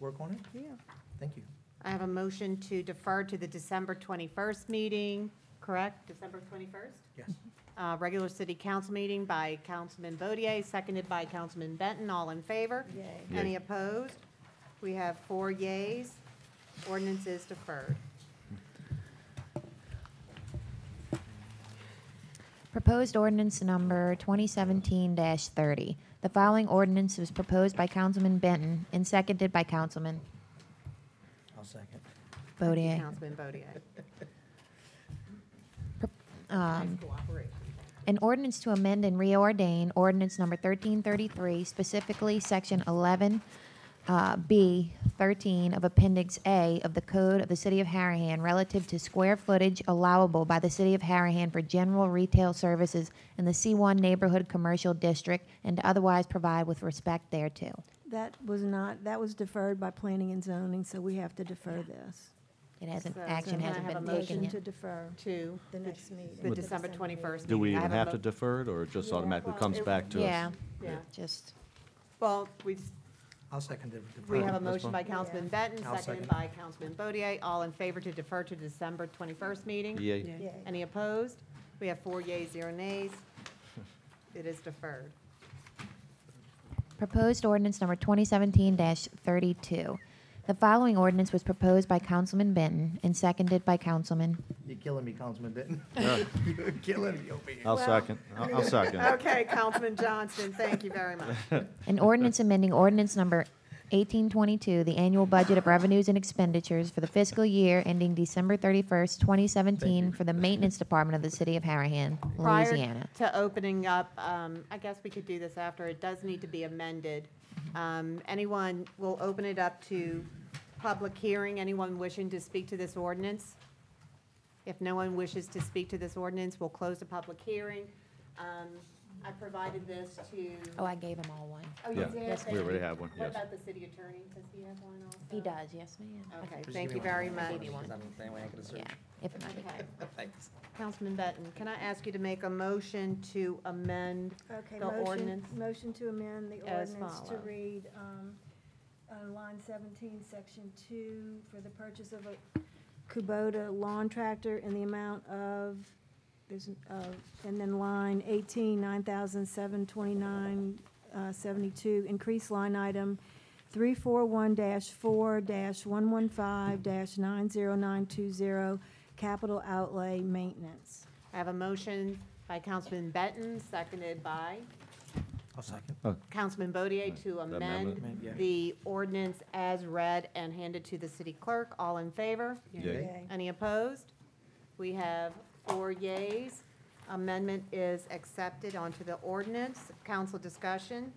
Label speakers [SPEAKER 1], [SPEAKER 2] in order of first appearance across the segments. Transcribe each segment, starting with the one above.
[SPEAKER 1] work on it.
[SPEAKER 2] Yeah.
[SPEAKER 1] Thank you.
[SPEAKER 2] I have a motion to defer to the December 21st meeting, correct? December 21st?
[SPEAKER 1] Yes.
[SPEAKER 2] Uh, Regular city council meeting by Councilman Bodier, seconded by Councilman Benton. All in favor?
[SPEAKER 3] Yay.
[SPEAKER 2] Any opposed? We have four yays. Ordinance is deferred.
[SPEAKER 4] Proposed ordinance number 2017-30. The following ordinance was proposed by Councilman Benton and seconded by Councilman
[SPEAKER 1] I'll second.
[SPEAKER 2] Thank you,
[SPEAKER 4] Bodier.
[SPEAKER 2] Councilman Bodier.
[SPEAKER 4] Um,
[SPEAKER 2] Cooperation.
[SPEAKER 4] An ordinance to amend and reordain ordinance number 1333, specifically Section 11B 13 of Appendix A of the Code of the City of Harahan relative to square footage allowable by the City of Harahan for general retail services in the C1 Neighborhood Commercial District and to otherwise provide with respect thereto.
[SPEAKER 3] That was not, that was deferred by planning and zoning, so we have to defer this.
[SPEAKER 4] It hasn't,
[SPEAKER 2] So-
[SPEAKER 4] action
[SPEAKER 2] so can I
[SPEAKER 4] hasn't
[SPEAKER 2] have
[SPEAKER 4] been
[SPEAKER 2] a
[SPEAKER 4] taken
[SPEAKER 3] Motion
[SPEAKER 4] yet.
[SPEAKER 3] to defer
[SPEAKER 2] To
[SPEAKER 3] the next meeting.
[SPEAKER 2] the December 21st.
[SPEAKER 5] Do we
[SPEAKER 2] meeting. I
[SPEAKER 5] even
[SPEAKER 2] a
[SPEAKER 5] have to
[SPEAKER 2] mo-
[SPEAKER 5] defer it, or it just
[SPEAKER 3] Yeah,
[SPEAKER 5] automatically
[SPEAKER 3] well,
[SPEAKER 5] comes
[SPEAKER 3] it-
[SPEAKER 5] back to us?
[SPEAKER 4] Yeah,
[SPEAKER 2] Yeah.
[SPEAKER 4] just,
[SPEAKER 2] Well, we,
[SPEAKER 1] I'll second it.
[SPEAKER 2] we have a
[SPEAKER 5] That's
[SPEAKER 2] motion
[SPEAKER 5] fine.
[SPEAKER 2] by Councilman Benton,
[SPEAKER 1] Uh, I'll
[SPEAKER 2] seconded
[SPEAKER 1] second.
[SPEAKER 2] by Councilman Bodier. All in favor to defer to December 21st meeting?
[SPEAKER 5] Yay.
[SPEAKER 3] Yay.
[SPEAKER 2] Any opposed? We have four yeas, zero nays. It is deferred.
[SPEAKER 4] proposed ordinance number 2017-32. The following ordinance was proposed by Councilman Benton and seconded by Councilman.
[SPEAKER 1] You're killing me, Councilman Benton.
[SPEAKER 5] Yeah.
[SPEAKER 1] You're killing me over here.
[SPEAKER 5] I'll second, I'll I'll second.
[SPEAKER 2] Okay, Councilman Johnston, thank you very much.
[SPEAKER 4] An ordinance amending ordinance number 1822, the annual budget of revenues and expenditures for the fiscal year ending December 31st, 2017, for the Maintenance Department of the City of Harahan, Louisiana.
[SPEAKER 2] Prior to opening up, um, I guess we could do this after, it does need to be amended. Um, Anyone, we'll open it up to public hearing, anyone wishing to speak to this ordinance? If no one wishes to speak to this ordinance, we'll close the public hearing. Um, I provided this to.
[SPEAKER 4] Oh, I gave him all one.
[SPEAKER 2] Oh, you
[SPEAKER 5] Yeah,
[SPEAKER 2] did?
[SPEAKER 4] yes,
[SPEAKER 5] we already have one,
[SPEAKER 2] What
[SPEAKER 5] yes.
[SPEAKER 2] about the city attorney, does he have one also?
[SPEAKER 4] He does, yes, ma'am.
[SPEAKER 2] Okay,
[SPEAKER 1] Just
[SPEAKER 2] thank
[SPEAKER 1] give
[SPEAKER 2] you
[SPEAKER 1] me one.
[SPEAKER 2] very much.
[SPEAKER 4] Maybe one.
[SPEAKER 1] I don't- that way I can search.
[SPEAKER 4] Yeah, if,
[SPEAKER 2] Okay.
[SPEAKER 1] Thanks.
[SPEAKER 2] Councilman Benton, can I ask you to make a motion to amend?
[SPEAKER 3] Okay,
[SPEAKER 2] The
[SPEAKER 3] motion,
[SPEAKER 2] ordinance.
[SPEAKER 3] motion to amend the
[SPEAKER 2] As
[SPEAKER 3] ordinance to
[SPEAKER 2] follows.
[SPEAKER 3] read, um, uh, line seventeen, section two, for the purchase of a Kubota lawn tractor in the amount of, there's, uh, and then line eighteen, nine thousand seven twenty-nine, uh, seventy-two, increase line item three four one dash four dash one one five dash nine zero nine two zero, capital outlay maintenance.
[SPEAKER 2] I have a motion by Councilman Benton, seconded by
[SPEAKER 1] I'll second.
[SPEAKER 2] Councilman Bodier to
[SPEAKER 5] That
[SPEAKER 2] amend
[SPEAKER 5] amendment.
[SPEAKER 1] Amend, yeah.
[SPEAKER 2] the ordinance as read and handed to the city clerk. All in favor?
[SPEAKER 5] Yay.
[SPEAKER 3] Okay.
[SPEAKER 2] Any opposed? We have four yays. Amendment is accepted onto the ordinance. Council discussion?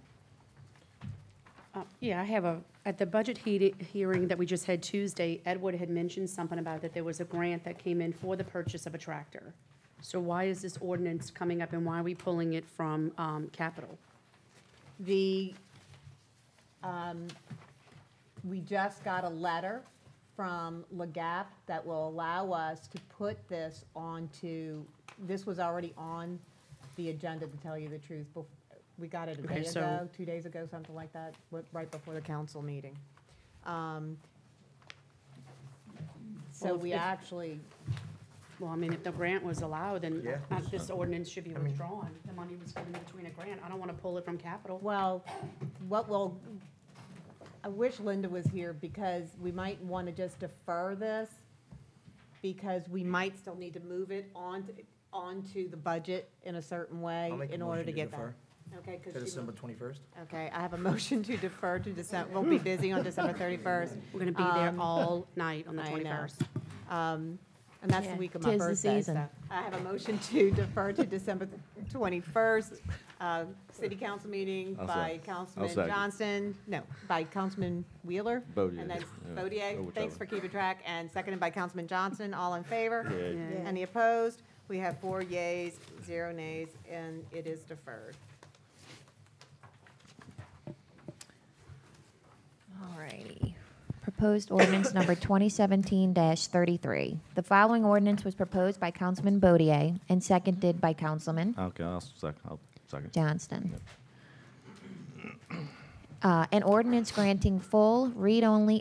[SPEAKER 6] Uh, Yeah, I have a, at the budget he- hearing that we just had Tuesday, Edward had mentioned something about that there was a grant that came in for the purchase of a tractor. So why is this ordinance coming up and why are we pulling it from um, capital?
[SPEAKER 2] The, um, we just got a letter from LAGAP that will allow us to put this onto, this was already on the agenda, to tell you the truth. bef- We got it a
[SPEAKER 6] Okay,
[SPEAKER 2] day
[SPEAKER 6] so-
[SPEAKER 2] ago, two days ago, something like that, wa- right before the council meeting. Um, So
[SPEAKER 6] Well, if-
[SPEAKER 2] we
[SPEAKER 6] if-
[SPEAKER 2] actually,
[SPEAKER 6] Well, I mean, if the grant was allowed, then
[SPEAKER 1] Yeah.
[SPEAKER 6] uh, this ordinance should be withdrawn. The money was given between a grant. I don't want to pull it from capital.
[SPEAKER 2] Well, what will, I wish Linda was here because we might want to just defer this because we might still need to move it on, onto the budget in a certain way
[SPEAKER 1] I'll make a
[SPEAKER 2] in order
[SPEAKER 1] motion
[SPEAKER 2] to get that.
[SPEAKER 1] defer
[SPEAKER 2] Okay, 'cause
[SPEAKER 1] To
[SPEAKER 2] she-
[SPEAKER 1] December twenty-first.
[SPEAKER 2] okay, I have a motion to defer to December, we'll be busy on December thirty-first.
[SPEAKER 6] We're going to be there
[SPEAKER 2] Um,
[SPEAKER 6] all night on the
[SPEAKER 2] I know.
[SPEAKER 6] 21st.
[SPEAKER 2] Um, And that's the
[SPEAKER 4] Yeah,
[SPEAKER 2] week of my
[SPEAKER 4] tis the
[SPEAKER 2] birthday, so.
[SPEAKER 4] season.
[SPEAKER 2] I have a motion to defer to December 21st, uh, city council meeting
[SPEAKER 5] I'll
[SPEAKER 2] by
[SPEAKER 5] sec- I'll
[SPEAKER 2] Councilman
[SPEAKER 5] second.
[SPEAKER 2] Johnston, no, by Councilman Wheeler.
[SPEAKER 5] Bodier,
[SPEAKER 2] And that's
[SPEAKER 5] yeah, or
[SPEAKER 2] Bodier,
[SPEAKER 5] whichever.
[SPEAKER 2] thanks for keeping track, and seconded by Councilman Johnson, all in favor?
[SPEAKER 5] Yay.
[SPEAKER 3] Yeah.
[SPEAKER 2] Any opposed? We have four yays, zero nays, and it is deferred.
[SPEAKER 4] Alrighty. Proposed ordinance number 2017-33. The following ordinance was proposed by Councilman Bodier and seconded by Councilman
[SPEAKER 5] Okay, I'll second, I'll second.
[SPEAKER 4] Johnston. Uh, An ordinance granting full, read-only